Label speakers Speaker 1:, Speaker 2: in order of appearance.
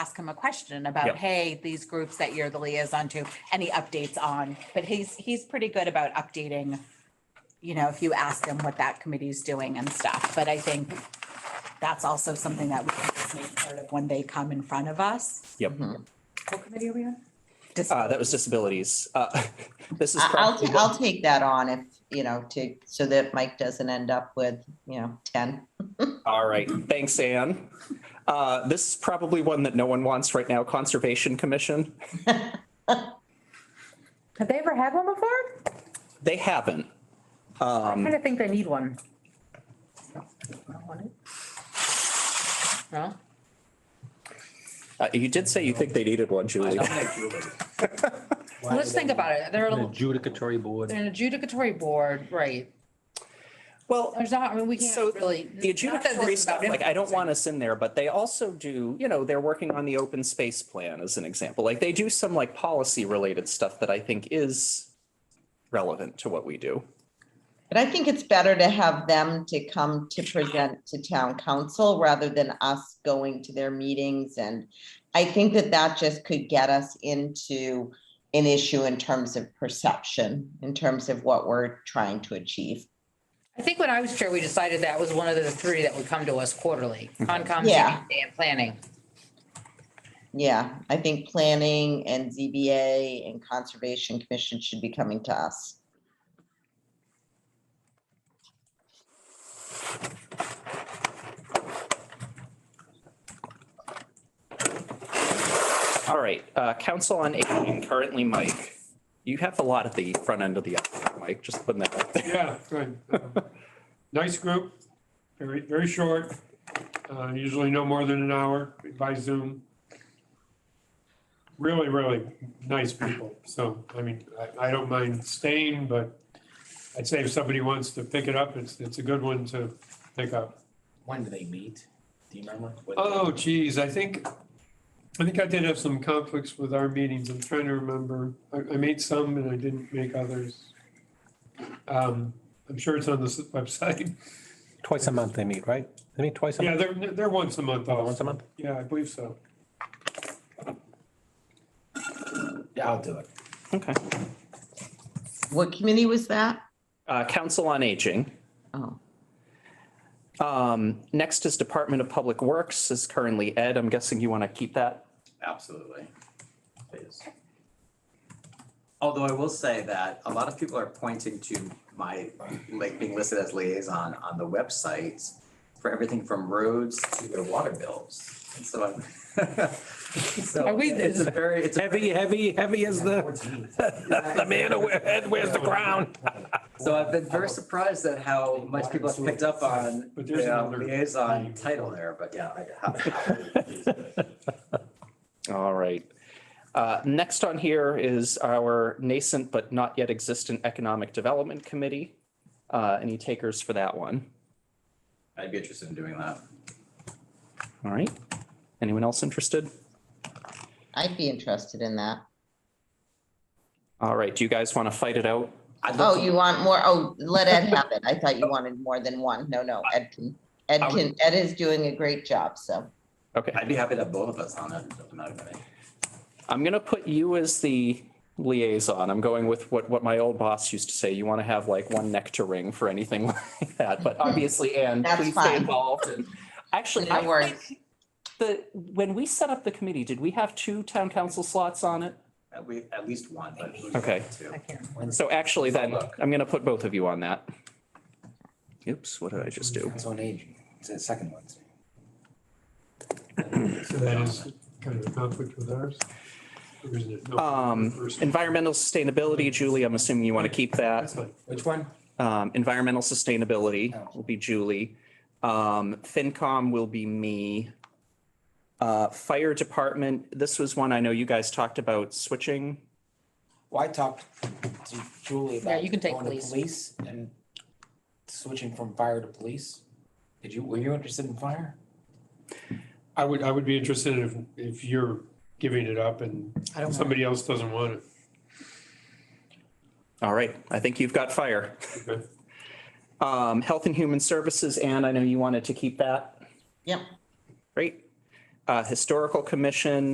Speaker 1: ask him a question about,
Speaker 2: Yep.
Speaker 1: hey, these groups that you're the liaison to, any updates on? But he's, he's pretty good about updating, you know, if you ask him what that committee's doing and stuff. But I think that's also something that we can just make part of when they come in front of us.
Speaker 2: Yep.
Speaker 3: Mm-hmm.
Speaker 1: What committee are we on?
Speaker 2: Uh, that was disabilities. Uh, this is
Speaker 3: I- I'll,
Speaker 2: probably
Speaker 3: ta- I'll take that on if, you know, to, so that Mike doesn't end up with, you know, ten.
Speaker 2: All right, thanks, Anne. Uh, this is probably one that no one wants right now, Conservation Commission.
Speaker 4: Have they ever had one before?
Speaker 2: They haven't.
Speaker 4: I'm
Speaker 2: Um,
Speaker 4: trying to think they need one. No?
Speaker 2: uh, you did say you think they needed one, Julie.
Speaker 5: Why
Speaker 4: Let's
Speaker 5: would
Speaker 4: think about it. They're,
Speaker 5: An
Speaker 4: a-
Speaker 5: adjudicatory board.
Speaker 4: they're an adjudicatory board, right?
Speaker 2: Well,
Speaker 4: There's not, I mean, we
Speaker 2: So
Speaker 4: can't really.
Speaker 2: the
Speaker 4: not that this
Speaker 2: adjudicatory
Speaker 4: is about
Speaker 2: stuff, like, I don't
Speaker 4: influencing.
Speaker 2: want us in there, but they also do, you know, they're working on the open space plan as an example. Like, they do some like policy related stuff that I think is relevant to what we do.
Speaker 3: But I think it's better to have them to come to present to town council rather than us going to their meetings and I think that that just could get us into an issue in terms of perception, in terms of what we're trying to achieve.
Speaker 4: I think when I was chair, we decided that was one of the three that would come to us quarterly, Concom,
Speaker 3: Yeah.
Speaker 4: CPA, and planning.
Speaker 3: Yeah, I think planning and ZBA and Conservation Commission should be coming to us.
Speaker 2: All right, uh, Council on Aging, currently Mike. You have a lot at the front end of the, alphabet, Mike, just putting that out there.
Speaker 6: Yeah, good. Um, Nice group, very, very short, uh, usually no more than an hour by Zoom. Really, really nice people. So, I mean, I, I don't mind staying, but I'd say if somebody wants to pick it up, it's, it's a good one to pick up.
Speaker 5: When do they meet? Do you remember? What day?
Speaker 6: Oh geez, I think, I think I did have some conflicts with our meetings. I'm trying to remember. I, I made some and I didn't make others. Um, I'm sure it's on the s- website.
Speaker 7: Twice a month they meet, right? They meet twice a
Speaker 6: Yeah,
Speaker 7: month,
Speaker 6: they're, they're once a month
Speaker 7: once
Speaker 6: off.
Speaker 7: a month?
Speaker 6: Yeah, I believe so.
Speaker 5: Yeah, I'll do it.
Speaker 2: Okay.
Speaker 3: What committee was that?
Speaker 2: Uh, Council on Aging.
Speaker 3: Oh,
Speaker 2: Um, next is Department of Public Works is currently Ed. I'm guessing you want to keep that?
Speaker 8: Absolutely. Please. Although I will say that a lot of people are pointing to my, like, being listed as liaison on the website for everything from roads to their water bills. And so I'm. so
Speaker 4: Are we-
Speaker 8: It's a very, it's a.
Speaker 7: Heavy, heavy, heavy as the, the man who wears- wears the crown.
Speaker 8: So I've been very surprised at how much people have picked up on
Speaker 6: But there's
Speaker 8: the uh,
Speaker 6: another-
Speaker 8: liaison title there, but yeah. I-
Speaker 2: All right. Uh, Next on here is our nascent but not yet existent Economic Development Committee. Uh, Any takers for that one?
Speaker 8: I'd be interested in doing that.
Speaker 2: All right. Anyone else interested?
Speaker 3: I'd be interested in that.
Speaker 2: All right, do you guys want to fight it out?
Speaker 8: I'd love
Speaker 3: Oh,
Speaker 8: to-
Speaker 3: you want more? Oh, let Ed have it. I thought you wanted more than one. No, no, Ed can, Ed
Speaker 8: I
Speaker 3: can,
Speaker 8: would-
Speaker 3: Ed is doing a great job, so.
Speaker 2: Okay,
Speaker 8: I'd be happy to have both of us on it. Doesn't matter to me.
Speaker 2: I'm going to put you as the liaison. I'm going with what, what my old boss used to say. You want to have like one neck to ring for anything like that. But obviously, Anne,
Speaker 3: That's
Speaker 2: please stay
Speaker 3: fine.
Speaker 2: involved. and- Actually,
Speaker 3: No
Speaker 2: I
Speaker 3: worries.
Speaker 2: think the, when we set up the committee, did we have two town council slots on it?
Speaker 8: At we, at least one, but.
Speaker 2: Okay.
Speaker 8: Two.
Speaker 4: I can't.
Speaker 2: So actually then,
Speaker 8: Look.
Speaker 2: I'm gonna put both of you on that. Oops, what did I just do?
Speaker 5: It's on aging. It's the second one.
Speaker 6: So that is kind of a conflict with ours. Or is it? No,
Speaker 2: Um,
Speaker 6: first.
Speaker 2: environmental sustainability, Julie, I'm assuming you want to keep
Speaker 6: That's
Speaker 2: that.
Speaker 6: fine.
Speaker 5: Which one?
Speaker 2: Um, environmental sustainability will be Julie. Um, FinCom will be me. Uh, fire department, this was one I know you guys talked about switching.
Speaker 5: Well, I talked to Julie about.
Speaker 4: Yeah, you can take
Speaker 5: going to
Speaker 4: police.
Speaker 5: Police and switching from fire to police. Did you, were you interested in fire?
Speaker 6: I would, I would be interested if, if you're giving it up and
Speaker 5: I don't.
Speaker 6: somebody else doesn't want it.
Speaker 2: All right, I think you've got fire.
Speaker 6: Okay.
Speaker 2: Um, health and human services, Anne, I know you wanted to keep that.
Speaker 3: Yep.
Speaker 2: Great. Uh, uh, Historical Commission,